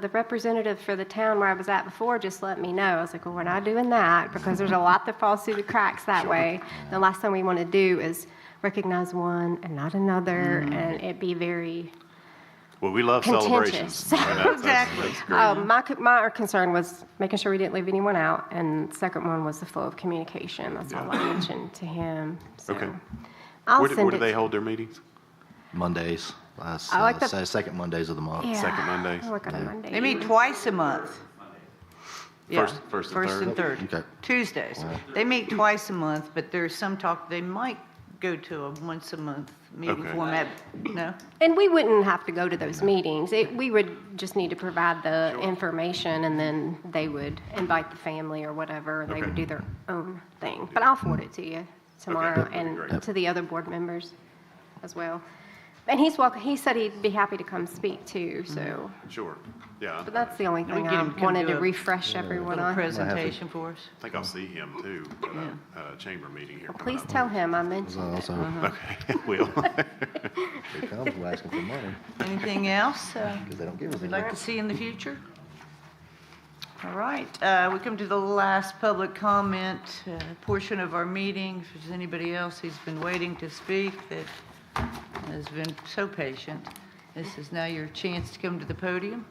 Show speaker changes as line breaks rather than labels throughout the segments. The representative for the town where I was at before just let me know. I was like, well, we're not doing that because there's a lot that falls through the cracks that way. The last thing we want to do is recognize one and not another
Mm.
and it be very
Well, we love celebrations.
contentious.
I know, that's-
Exactly.
that's great.
Um, My, c- my concern was making sure we didn't leave anyone out and second one was the flow of communication. That's all I mentioned to him. So
Okay.
I'll
Where do-
send
where do they
it.
hold their meetings?
Mondays. That's,
I like
uh,
the-
se- second Mondays of the month.
Yeah,
Second Mondays?
I work on a Monday.
They meet twice a month. Yeah,
First- first and third.
First and
Okay.
third. Tuesdays. They meet twice a month, but there's some talk, they might go to a once a month meeting
Okay.
format. No?
And we wouldn't have to go to those meetings. It, we would just need to provide the information and then they would invite the family or whatever. and They would
Okay.
do their own thing. But I'll forward it to you tomorrow
that'd be
and
great.
to the other board members as well. And he's welcome, he said he'd be happy to come speak too, so,
Sure. Yeah,
but
I
that's the only thing
get
I
him to come
wanted
do
to
a
refresh everyone
Little
on.
presentation for us.
think I'll see him too at a- at a chamber meeting here. coming
Please
up.
tell him I mentioned it.
Also,
Okay, will.
here comes, we're asking for money
Anything else uh,
because they don't give us
you'd
any.
like to see in the future? All right, uh, we come to the last public comment uh, portion of our meeting. If there's anybody else who's been waiting to speak that has been so patient, this is now your chance to come to the podium.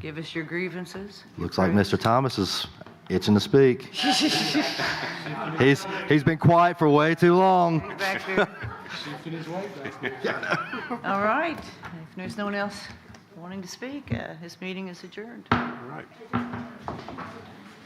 Give us your grievances.
Looks like Mr. Thomas is itching to speak. he's he's been quiet for way too long.
Back there. All right, if there's no one else wanting to speak, uh, this meeting is adjourned.
All right.